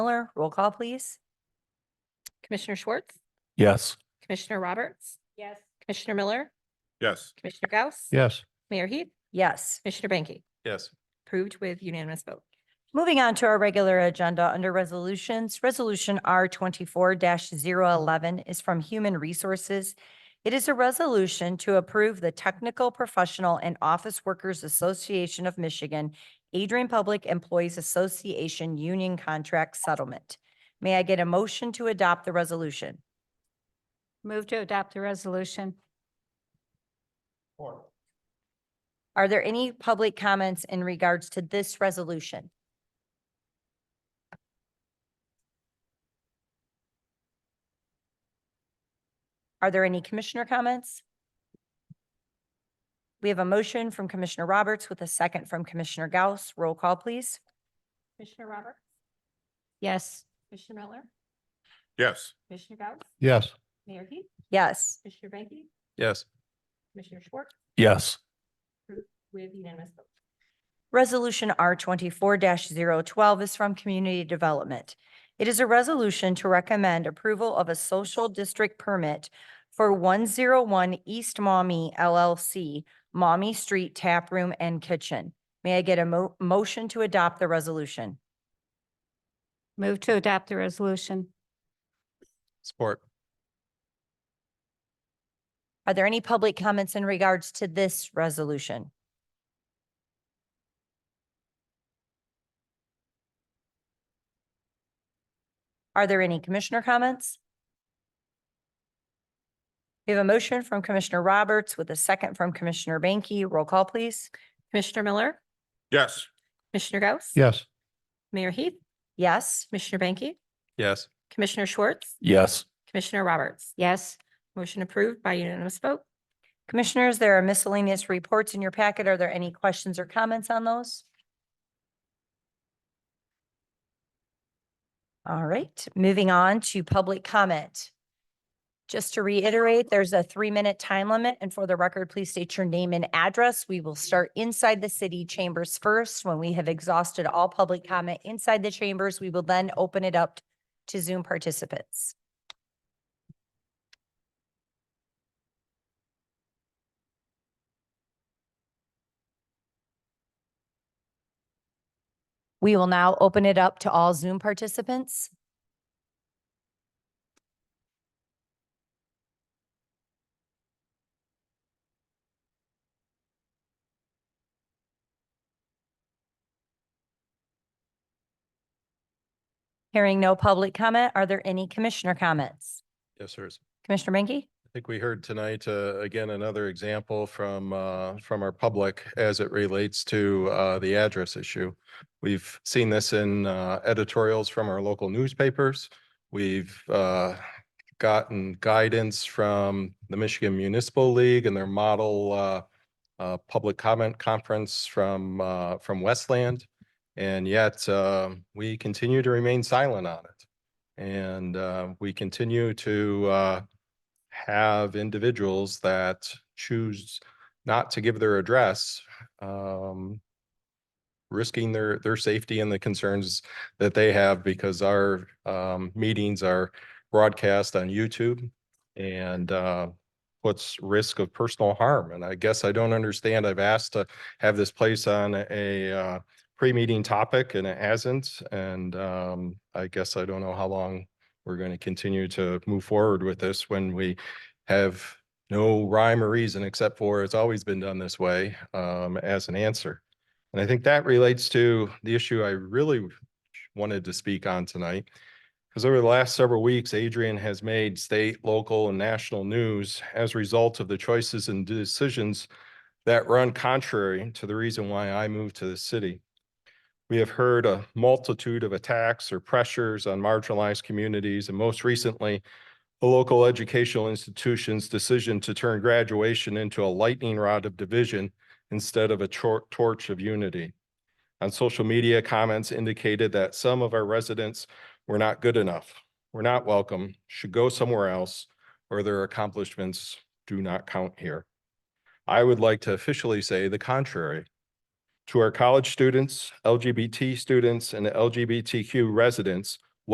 Miller, roll call, please. Commissioner Schwartz, Yes. Commissioner Roberts. Yes. Commissioner Miller, Yes. Commissioner Gauss. Yes. Mayor Heath, Yes. Commissioner Banky, Yes. approved with unanimous vote. Moving on to our regular agenda under resolutions, Resolution R twenty-four 11 is from Human Resources. It is a resolution to approve the Technical Professional and Office Workers Association of Michigan Adrian Public Employees Association Union Contract Settlement. May I get a motion to adopt the resolution? Move to adopt the resolution. Are there any public comments in regards to this resolution? Are there any commissioner comments? We have a motion from Commissioner Roberts with a second from Commissioner Gauss. Roll call, please. Commissioner Roberts, Yes. Commissioner Miller, Yes. Commissioner Gauss, Yes. Mayor Heath, Yes. Commissioner Banky, Yes. Commissioner Schwartz, Yes. with unanimous vote. Resolution R twenty-four 12 is from Community Development. It is a resolution to recommend approval of a social district permit for one zero one East Maumee LLC, Maumee Street Tap Room and Kitchen. May I get a mo- motion to adopt the resolution? Move to adopt the resolution. Support. Are there any public comments in regards to this resolution? Are there any commissioner comments? We have a motion from Commissioner Roberts with a second from Commissioner Banky. Roll call, please. Commissioner Miller, Yes. Commissioner Gauss. Yes. Mayor Heath, Yes. Commissioner Banky, Yes. Commissioner Schwartz, Yes. Commissioner Roberts. Yes. Motion approved by unanimous vote. Commissioners, there are miscellaneous reports in your packet. Are there any questions or comments on those? All right, moving on to public comment. Just to reiterate, there's a three-minute time limit, and for the record, please state your name and address. We will start inside the city chambers first. When we have exhausted all public comment inside the chambers, we will then open it up to Zoom participants. We will now open it up to all Zoom participants. Hearing no public comment, are there any commissioner comments? Yes, sir. I Commissioner Menke? think we heard tonight, uh, again, another example from, uh, from our public as it relates to, uh, the address issue. We've seen this in, uh, editorials from our local newspapers. We've, uh, gotten guidance from the Michigan Municipal League and their model, uh, uh, public comment conference from, uh, from Westland. And yet, uh, we continue to remain silent on it. And, uh, we continue to, uh, have individuals that choose not to give their address, um, risking their, their safety and the concerns that they have because our, um, meetings are broadcast on YouTube and, uh, puts risk of personal harm. And I guess I don't understand. I've asked to have this place on a, uh, pre-meeting topic and it hasn't. And, um, I guess I don't know how long we're going to continue to move forward with this when we have no rhyme or reason except for it's always been done this way um, as an answer. And I think that relates to the issue I really wanted to speak on tonight. Because over the last several weeks, Adrian has made state, local, and national news as a result of the choices and decisions that run contrary to the reason why I moved to the city. We have heard a multitude of attacks or pressures on marginalized communities, and most recently, a local educational institution's decision to turn graduation into a lightning rod of division instead of a tor- torch of unity. On social media, comments indicated that some of our residents were not good enough, were not welcome, should go somewhere else, or their accomplishments do not count here. I would like to officially say the contrary. To our college students, LGBT students, and LGBTQ residents